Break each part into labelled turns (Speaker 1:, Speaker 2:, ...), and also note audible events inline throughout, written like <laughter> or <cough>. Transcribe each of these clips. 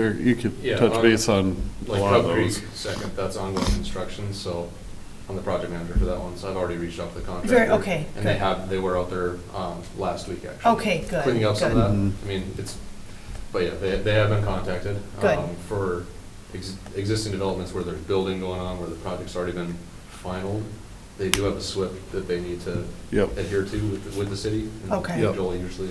Speaker 1: Or You could
Speaker 2: Yeah,
Speaker 1: touch
Speaker 2: on-
Speaker 1: base on a
Speaker 2: Like
Speaker 1: lot of
Speaker 2: Cub Creek,
Speaker 1: those.
Speaker 2: second, that's ongoing construction, so I'm the project manager for that one, so I've already reached out to the contractor.
Speaker 3: Very- okay,
Speaker 2: And they
Speaker 3: good.
Speaker 2: have, they were out there, um, last week actually.
Speaker 3: Okay, good,
Speaker 2: Cleaning up some of
Speaker 3: good.
Speaker 2: that,
Speaker 1: Mhm.
Speaker 2: I mean, it's, but yeah, they, they have been contacted.
Speaker 3: Good.
Speaker 2: um, For ex- existing developments where there's building going on, where the project's already been final, they do have a SWIP that they need to
Speaker 1: Yep.
Speaker 2: adhere to with, the- with the city. and
Speaker 3: Okay.
Speaker 1: Yep.
Speaker 2: Joel usually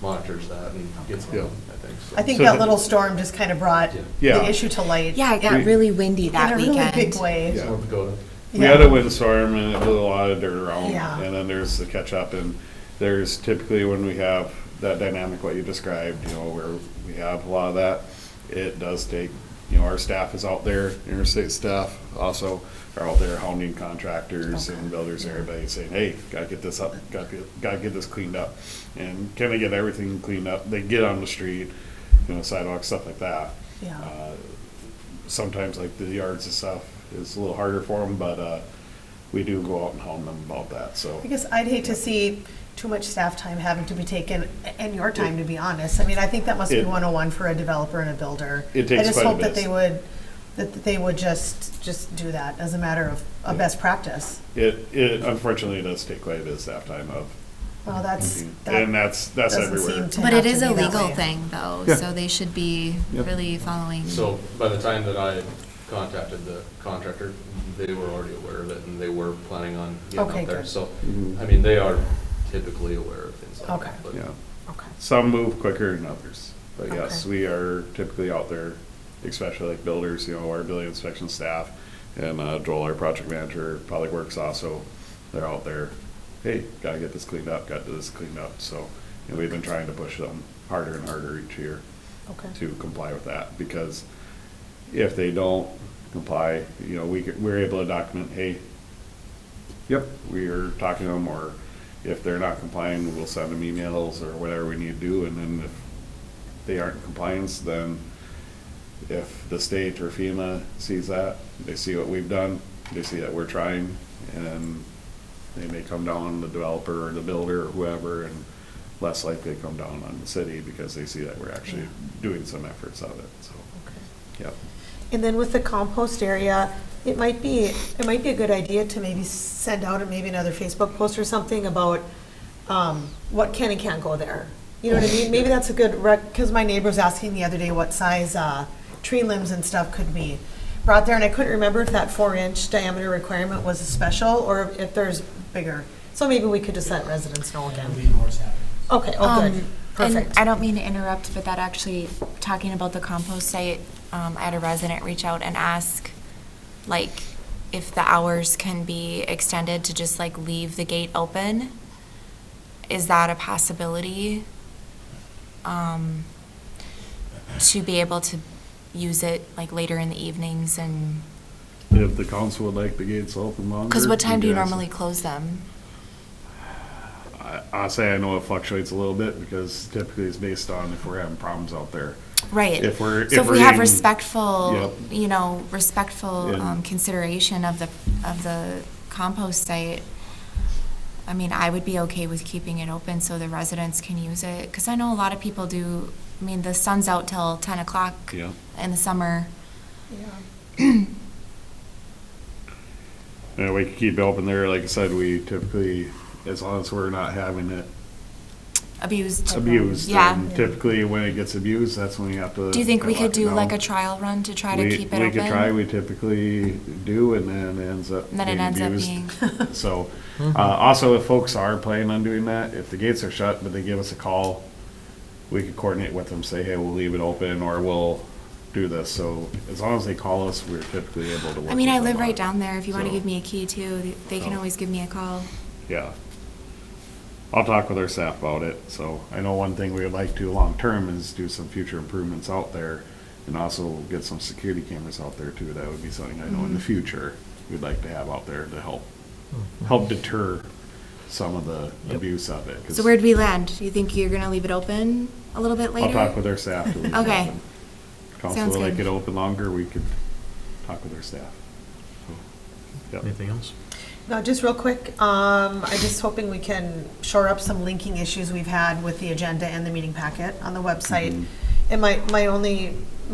Speaker 2: monitors that and gets
Speaker 1: Okay.
Speaker 2: them, I think, so.
Speaker 3: I think
Speaker 1: So
Speaker 3: that
Speaker 1: the-
Speaker 3: little storm just kind of brought
Speaker 2: Yeah.
Speaker 1: Yeah.
Speaker 3: the issue to light.
Speaker 4: Yeah, it got
Speaker 1: We-
Speaker 4: really windy that
Speaker 3: In a really
Speaker 4: weekend.
Speaker 3: big way.
Speaker 1: Yeah.
Speaker 2: North Dakota.
Speaker 1: We had a windstorm and it blew a lot of dirt around,
Speaker 3: Yeah.
Speaker 1: and then there's the catch up, and there's typically when we have that dynamic, what you described, you know, where we have a lot of that, it does take, you know, our staff is out there, interstate staff also are out there hounding contractors and builders and everybody saying, hey, gotta get this up, gotta get, gotta get this cleaned up. And can they get everything cleaned up? They get on the street, you know, sidewalks, stuff like that.
Speaker 3: Yeah.
Speaker 1: Uh, sometimes like the yards and stuff is a little harder for them, but uh, we do go out and hound them about that. So
Speaker 3: I guess I'd hate to see too much staff time having to be taken, and your time, to be honest. I mean, I think that must be
Speaker 1: It-
Speaker 3: 101 for a developer and a builder.
Speaker 1: It takes
Speaker 3: I just
Speaker 1: quite a
Speaker 3: hope that
Speaker 1: bit.
Speaker 3: they would, that they would just, just do that as a matter of,
Speaker 1: Yeah.
Speaker 3: of best practice.
Speaker 1: it, it unfortunately does take quite a bit of staff time up,
Speaker 3: Well, that's, that
Speaker 1: and that's that's
Speaker 3: doesn't
Speaker 1: everywhere.
Speaker 3: seem to
Speaker 4: But
Speaker 3: have
Speaker 4: it
Speaker 3: to
Speaker 4: is
Speaker 3: be
Speaker 4: a
Speaker 3: that
Speaker 4: legal
Speaker 3: way.
Speaker 4: thing though,
Speaker 1: Yeah.
Speaker 4: so they should be
Speaker 1: Yep.
Speaker 4: really following.
Speaker 2: So by the time that I contacted the contractor, they were already aware of it and they were planning on getting
Speaker 3: Okay,
Speaker 2: out there.
Speaker 3: good.
Speaker 2: So,
Speaker 1: Mhm.
Speaker 2: I mean, they are typically aware of things like
Speaker 3: Okay.
Speaker 2: that. but-
Speaker 1: Yeah,
Speaker 3: Okay.
Speaker 1: some move quicker than others, but yes,
Speaker 3: Okay.
Speaker 1: we are typically out there, especially like builders. You know, our building inspection staff and uh, Joel, our project manager, Public Works also, they're out there. Hey, gotta get this cleaned up. Got to this cleaned up. So, and we've been trying to push them harder and harder each year.
Speaker 3: Okay.
Speaker 1: to comply with that, because if they don't comply, you know, we, could- we're able to document, hey, yep, we're talking to them, or if they're not complying, we'll send them emails or whatever we need to do, and then if they aren't in compliance, then if the state or FEMA sees that, they see what we've done, they see that we're trying, and they may come down, the developer or the builder or whoever, and less likely come down on the city because they see that we're actually doing some efforts of it, so, yep.
Speaker 3: And then with the compost area, it might be, it might be a good idea to maybe send out a maybe another Facebook post or something about um, what can and can't go there. You know what I mean? Maybe that's a good rec, because my neighbor was asking the other day what size uh, tree limbs and stuff could be brought there, and I couldn't remember if that four-inch diameter requirement was a special or if there's bigger. So maybe we could just let residents know
Speaker 5: That'll
Speaker 3: again.
Speaker 5: be more Saturdays.
Speaker 3: Okay, oh,
Speaker 4: Um,
Speaker 3: good,
Speaker 4: And
Speaker 3: perfect.
Speaker 4: I don't mean to interrupt, but that actually, talking about the compost site, um, I had a resident reach out and ask, like, if the hours can be extended to just like leave the gate open. Is that a possibility? Um, to be able to use it like later in the evenings and,
Speaker 1: If the council would like the gates open longer.
Speaker 4: cause what time do you
Speaker 1: guys-
Speaker 4: normally close them?
Speaker 1: I, I say I know it fluctuates a little bit because typically it's based on if we're having problems out there.
Speaker 4: Right.
Speaker 1: If we're-
Speaker 4: So
Speaker 1: if
Speaker 4: if
Speaker 1: we're
Speaker 4: we have
Speaker 1: getting-
Speaker 4: respectful,
Speaker 1: Yep.
Speaker 4: you know, respectful
Speaker 1: And-
Speaker 4: um, consideration of the, of the compost site, I mean, I would be okay with keeping it open so the residents can use it. Because I know a lot of people do, I mean, the sun's out till ten o'clock
Speaker 1: Yeah.
Speaker 4: in the summer.
Speaker 1: Yeah, we could keep it open there. Like I said, we typically, as long as we're not having it
Speaker 4: Abused.
Speaker 1: abused.
Speaker 4: Yeah.
Speaker 1: and Typically, when it gets abused, that's when you have to.
Speaker 4: Do you think we
Speaker 1: kinda
Speaker 4: could
Speaker 1: lock it
Speaker 4: do like a
Speaker 1: down.
Speaker 4: trial run to try to
Speaker 1: We-
Speaker 4: keep it open?
Speaker 1: We could try, we typically do, and then it ends up
Speaker 4: Then it
Speaker 1: being
Speaker 4: ends up
Speaker 1: abused. <laughs> So, uh, also, if folks are planning on doing that, if the gates are shut, but they give us a call, we could coordinate with them, say, hey, we'll leave it open, or we'll do this. So as long as they call us, we're typically able to work
Speaker 4: I mean,
Speaker 1: with
Speaker 4: I
Speaker 1: them
Speaker 4: live
Speaker 1: on
Speaker 4: right
Speaker 1: it.
Speaker 4: down there. If you want to
Speaker 1: So- Oh.
Speaker 4: give me a key too, they- they can
Speaker 1: So-
Speaker 4: always give me a call.
Speaker 1: Yeah. I'll talk with our staff about it, so I know one thing we would like to long-term is do some future improvements out there and also get some security cameras out there too. That would be something I know
Speaker 6: Mm-hmm.
Speaker 1: in the future we'd like to have out there to help,
Speaker 6: Mm-hmm.
Speaker 1: help deter some of the abuse of it. 'cause
Speaker 4: So where'd we land? Do you think you're gonna leave it open a little bit later?
Speaker 1: I'll talk with our staff. to leave it
Speaker 4: Okay.
Speaker 1: open.
Speaker 4: Sounds
Speaker 1: Council, like
Speaker 4: good.
Speaker 1: it open longer, we could talk with our staff. So, yep.
Speaker 6: Anything else?
Speaker 3: No, just real quick, um, I'm just hoping we can shore up some linking issues we've had with the agenda and the meeting packet on the website.
Speaker 1: Mhm.
Speaker 3: And my, my only